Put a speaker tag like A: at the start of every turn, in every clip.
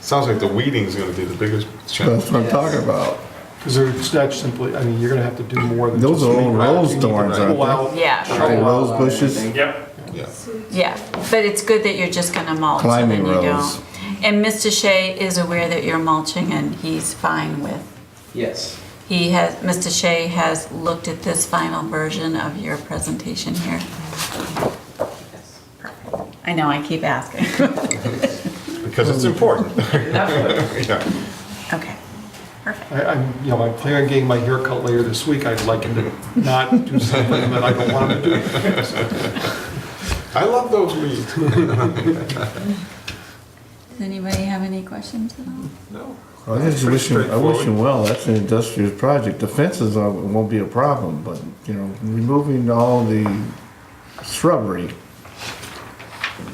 A: Sounds like the weeding's gonna be the biggest
B: That's
A: challenge.
B: what I'm talking about.
C: Because it's not simply, I mean, you're gonna have to do more than.
B: Those
C: just
B: are all
C: leave rock.
B: rose
C: You need to
B: thorns,
C: pull
B: aren't they?
C: out-
D: Yeah,
E: Oh.
B: All Rose bushes,
F: Yep.
A: Yeah.
D: yeah, but it's good that you're just gonna mulch and then
B: Climbing
D: you
B: rose.
D: don't. And Mr. Shea is aware that you're mulching and he's fine with.
E: Yes.
D: He has, Mr. Shea has looked at this final version of your presentation here.
E: Yes.
D: I know, I keep asking.
A: Because it's important.
E: Definitely.
A: Yeah.
D: Okay, perfect.
C: I, I'm, you know, I'm planning on getting my haircut later this week. I'd like him to not do something that I don't want him to do.
A: I love those weeds.
D: Does anybody have any questions at all?
A: No.
B: I just wish him, I wish him well, that's an industrious project, the fences are- won't be a problem, but, you know, removing all the shrubbery,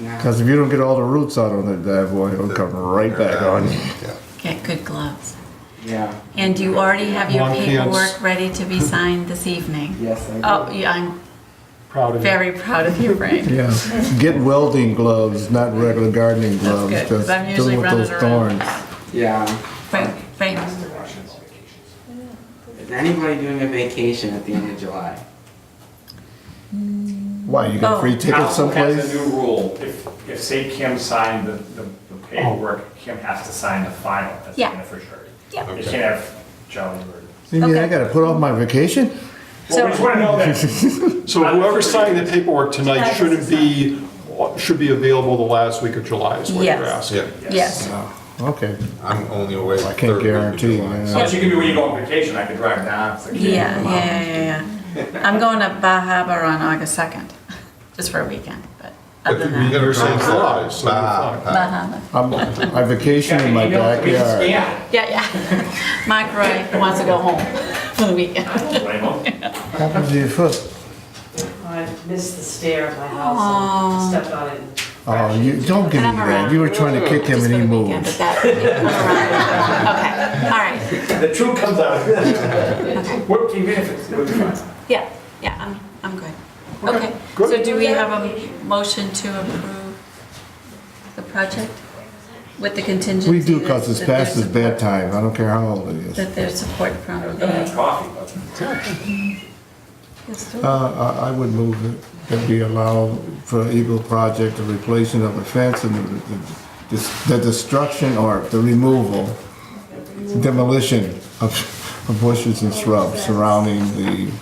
E: Now,
B: cause if you don't get all the roots out on that bad boy, it'll come right back on you.
A: Yeah.
D: Get good gloves.
E: yeah,
D: And do you already have your
C: Long pants.
D: paperwork ready to be signed this evening?
E: yes, I do.
D: Oh, yeah, I'm
C: Proud of you.
D: very proud of you, Frank.
B: Yeah, get welding gloves, not regular gardening
D: That's
B: gloves,
D: good, because I'm
B: that's
D: usually
B: dealing with
D: running
B: those
D: around.
B: thorns.
E: Yeah.
D: Frank, Frank,
E: Is anybody doing a vacation at the end of July?
B: Why, you got
D: Oh.
B: free tickets
F: Council has a
B: someplace?
F: new rule, if, if say Kim signed the, the the paperwork, Kim has to sign the final, that's
D: Oh. Yeah.
F: gonna for sure.
D: Yeah.
F: You can't have Jolly or.
B: You mean I
D: Okay.
B: gotta put off my vacation?
F: Well, we just wanna know that.
C: So whoever signed the paperwork tonight shouldn't be, should be available the last week of July is what you're
D: Yes.
C: asking.
A: Yeah.
D: yes,
B: Okay,
A: I'm only away.
B: I can't
A: third week of
B: guarantee,
A: July,
B: man.
A: so-
F: But you can do when you go on vacation, I could drive down. it's like-
D: yeah, yeah, yeah, yeah, yeah. I'm going to Bar Harbor on August 2nd, just for a weekend, but
A: But
D: other
A: you
D: than that,
A: gotta
C: You're saying
B: Uh-huh.
A: remember-
C: July, so you're
A: Bah,
C: fine.
A: bah.
D: Bar Harbor.
B: I'm, I vacation in my
F: You know, we can
B: backyard.
F: scan.
D: Yeah, yeah. Mike Roy wants to go home for the weekend.
F: Raymond.
B: Happens to your foot.
G: I missed the stair of my house and stepped on it. and
B: Oh, you, don't give me that. You were trying to kick him
D: Just
B: and he
D: for the weekend,
B: moved.
D: but that- Okay, all right,
F: The truth comes out. Fourteen minutes, it's gonna be fine.
D: yeah, yeah, I'm, I'm good. Okay, so do we have a motion to approve the project with the contingency?
B: We do because it's
D: that- that
B: past his
D: there's support-
B: bedtime. I don't care how old it is.
D: That there's support from
F: I was gonna have
D: the.
F: coffee, but.
D: Yes, do it.
B: Uh, I, I would move that, that we allow for Eagle Project the replacement of a fence and the, the, the destruction or the removal, demolition of, of bushes and shrubs surrounding the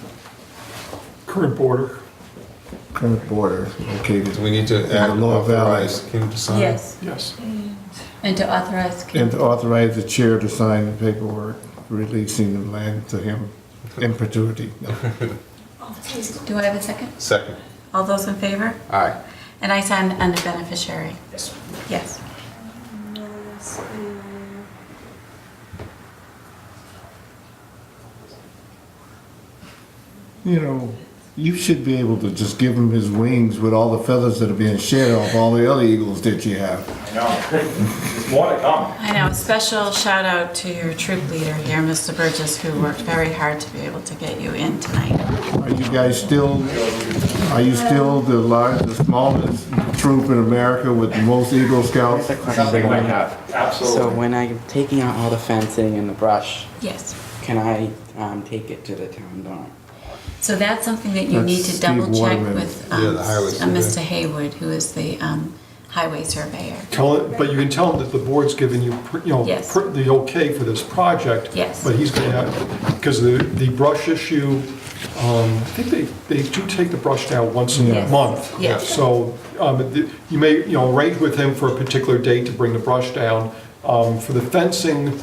C: Current border.
B: current border located.
A: Do we need to add
B: Lower
A: authorize Kim to sign?
D: Yes,
C: Yes.
D: and to authorize.
B: And to authorize the chair to sign the paperwork releasing the land to him in perpetuity.
D: Do I have a second?
A: Second.
D: All those in favor?
A: Aye.
D: And I sign under beneficiary.
F: Yes.
D: Yes.
B: You know, you should be able to just give him his wings with all the feathers that are being shed off all the other eagles that you have.
F: I know. There's more to come.
D: I know, special shout out to your troop leader here, Mr. Burgess, who worked very hard to be able to get you in tonight.
B: Are you guys still, are you still the largest, the smallest troop in America with the most Eagle Scouts?
F: Something like that.
E: So
F: Absolutely.
E: when I'm taking out all the fencing and the brush,
D: Yes.
E: can I um, take it to the town dorm?
D: So that's something that you need to
B: That's Steve
D: double check
B: Waterman.
D: with
A: Yeah,
D: um,
A: the highway
D: uh, Mr. Haywood, who is the um, highway surveyor.
C: Tell it, but you can tell him that the board's given you, you know,
D: Yes.
C: pr- the okay for this project.
D: Yes.
C: But he's going to have, because the, the brush issue, um, I think they, they do take the brush down once a
D: Yes.
C: month.
D: Yes.
C: So, um, the- you may, you know, arrange with him for a particular date to bring the brush down. Um, for the fencing,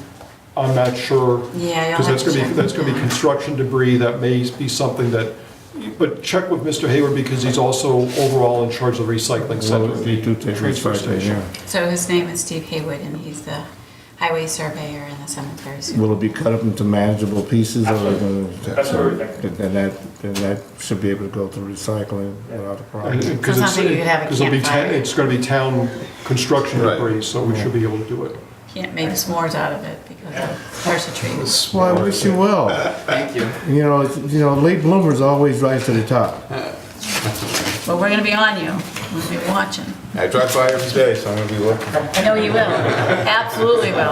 C: I'm not sure.
D: Yeah, I'll
C: Because that's
D: have to
C: going to be,
D: check.
C: that's going to be construction debris, that may be something that, but check with Mr. Hayward because he's also overall in charge of the recycling
B: Well,
C: center.
B: it'd be two tables
C: transfer
B: right there,
C: station.
B: yeah.
D: So his name is Steve Haywood, and he's the highway surveyor and the cemetery supervisor.
B: Will it be cut up into manageable pieces or?
F: That's what we're thinking.
B: Then that, then that should be able to go through recycling without a problem.
C: Because
D: So it's not that you have a
C: it'll be, ta-
D: campfire.
C: it's gonna be town construction
A: Right.
C: debris, so we should be able to do it.
D: Can't make s'mores out of it because of person trees.
B: Well, I wish you well.
E: Thank you.
B: You know, it's- you know, late bloomers always rise to the top.
D: But we're going to be on you. We'll be watching.
A: I drive by every day, so I'm gonna be looking.
D: No, you will. Absolutely will.